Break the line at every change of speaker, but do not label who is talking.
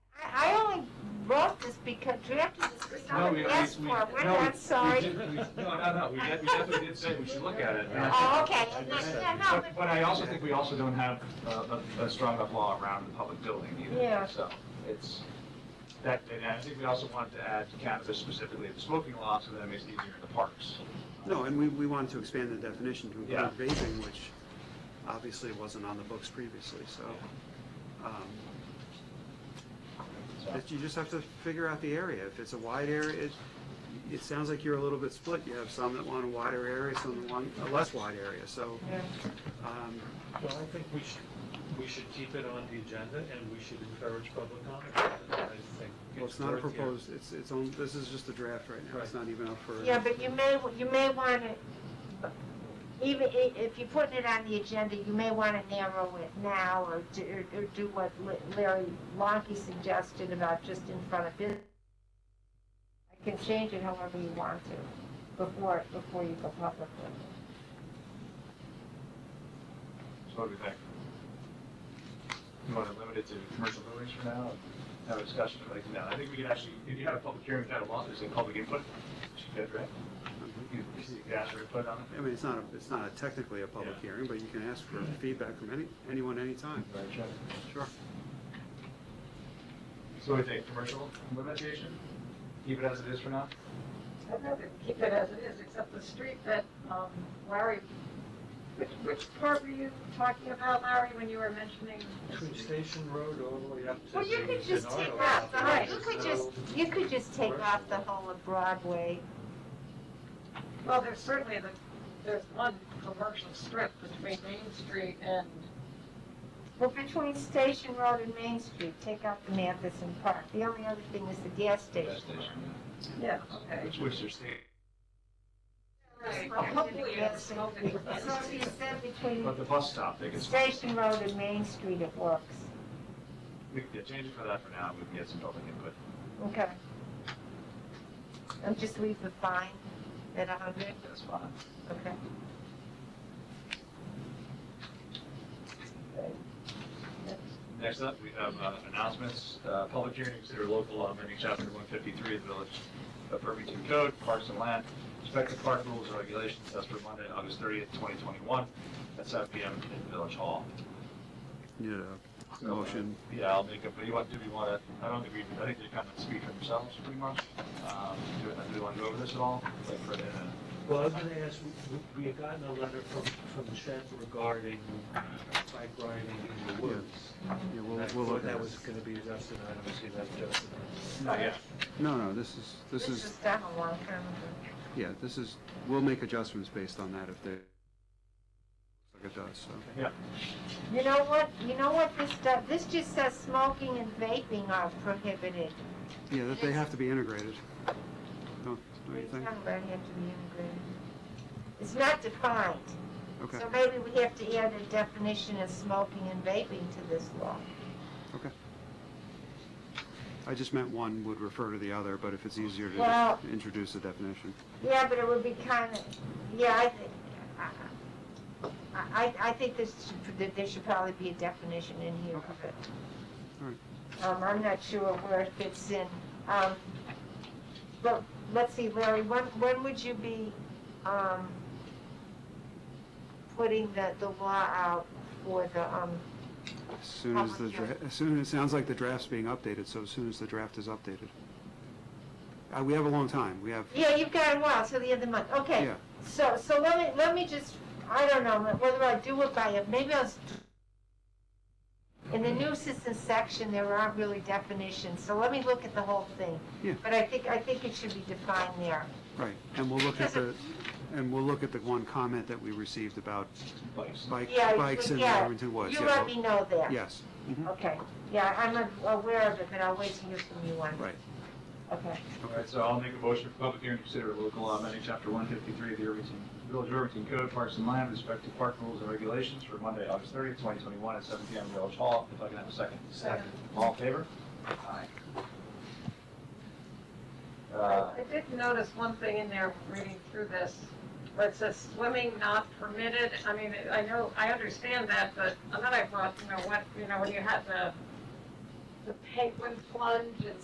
just because, we have to just,
No,
someone
we- we-
asked
we-
for it, we're
no, we-
not
we
sorry.
did- we- No, no, no, we de- we definitely did say we should look at it.
Oh, okay, and that- yeah, no,
But- But I also think we also don't have uh, a, a strong enough law around the public building
Yeah.
either, so it's, that, and I think we also wanted to add cannabis specifically in the smoking law, so that it makes it easier in the parks.
No, and we, we wanted to expand the definition to
Yeah.
include vaping, which obviously wasn't on the books previously, so. um,
So-
if You just have to figure out the area. If it's a wide area, it, it sounds like you're a little bit split. You have some that want a wider area, some that want a less wide area, so. um,
Well, I think we should, we should keep it on the agenda and we should encourage public comment. I think
Well, it's not a
worth your-
proposed, it's, it's on, this is just a draft right now. It's
Right.
not even up for.
Yeah, but you may, you may want to, even i- if you're putting it on the agenda, you may want to narrow it now or do, or- or do what La- Larry Lonkey suggested about just in front of business. You can change it however you want to before, before you go public. with it.
So what do we think? You want to limit it to commercial buildings for now, and have a discussion like, no, I think we can actually, if you have a public hearing without a law, there's a public input, which you could, right? You could ask for input on
I mean, it's not, a- it's not a- technically a public
Yeah.
hearing, but you can ask for feedback from any, anyone, anytime.
it. Right, sure.
Sure.
So we take commercial limitation, keep it as it is for now?
I think they keep it as it is, except the street that, um, Larry, which, which part were you talking about, Larry, when you were mentioning?
Between Station Road all the way up to.
Well, you
the-
could just
the
take
Nardo
off, the
Road.
whole- you could
There's
just, you could just take off the whole of Broadway.
Well, there's certainly the, there's one commercial strip between Main Street and,
Well, between Station Road and Main Street, take out the Matheson Park. The only other thing is the gas station.
yeah, okay.
Which, which there's state,
Well, Hopefully it's smoking.
So if you said between
but the bus stop, they can,
Station Road and Main Street, it works.
we can change it for that for now, we can get some public input.
Okay. And just leave the fine at a hundred,
That's fine.
okay?
Next up, we have uh, announcements, Uh, public hearing, to consider local law amending chapter one fifty-three of the Village of Irvington Code, Parks and Land, respective park rules and regulations, that's for Monday, August thirtieth, twenty twenty-one, at seven P M in Village Hall.
Need a
uh,
motion.
Yeah, I'll make a, but you want, do we want to, I don't think we, I think they kind of speak for themselves pretty much. Um, Do do we want to go over this at all? Like for the,
Well, I was gonna ask, we- we had gotten a letter from, from Chet regarding bike riding in the woods.
Yeah, we'll,
And I
we'll
thought
look at
that
it.
was gonna be adjusted, I don't see that adjusted.
Oh, yeah.
No, no, this is, this is,
done a long time ago.
yeah, this is, we'll make adjustments based on that if they, like it does, so.
You know what, you know what this does? This just says smoking and vaping are prohibited.
Yeah, that they have to be integrated. Don't, don't you think?
Talking about have to be integrated. It's not defined.
Okay,
So maybe we have to add a definition of smoking and vaping to this law.
okay. I just meant one would refer to the other, but if it's easier to
Well-
just introduce a definition.
Yeah, but it would be kind of, yeah, I think, uh, I, I think this, should- that there should probably be a definition in here of it. Um, I'm not sure where it fits in. Um, but, let's see, Larry, when, when would you be, um, putting the, the law out for the, um,
As soon as the,
Public hearing.
dra- as soon, as it sounds like the draft's being updated, so as soon as the draft is updated. Uh, we have a long time, we have,
yeah, you've got a while, till the end of the month, okay.
yeah,
So, so let me, let me just, I don't know, whether I do it by, it. maybe I'll, s- in the new assistance section, there aren't really definitions, so let me look at the whole thing.
Yeah.
But I think, I think it should be defined there.
right. And we'll look at the, and we'll look at the one comment that we received about
Bikes.
bike,
Yeah,
bikes in
yeah.
Irvington Woods.
You
Yeah,
let
we'll-
me know that.
Yes, mhm,
Okay, yeah, I'm aware of it, but I'll wait to hear from you on it.
right.
Okay.
All right, so I'll make a motion for public hearing, to consider local law amending chapter one fifty-three of the Irvington, Village of Irvington Code, Parks and Land, respective park rules and regulations for Monday, August thirtieth, twenty twenty-one, at seven P M. Village Hall. If I can have a second.
Second.
All in favor? Aye. Uh,
I did notice one thing in there, reading through this, where it says swimming not permitted. I mean, I know, I understand that, but another thought, you know, what, you know, when you had the, the penguin plunge and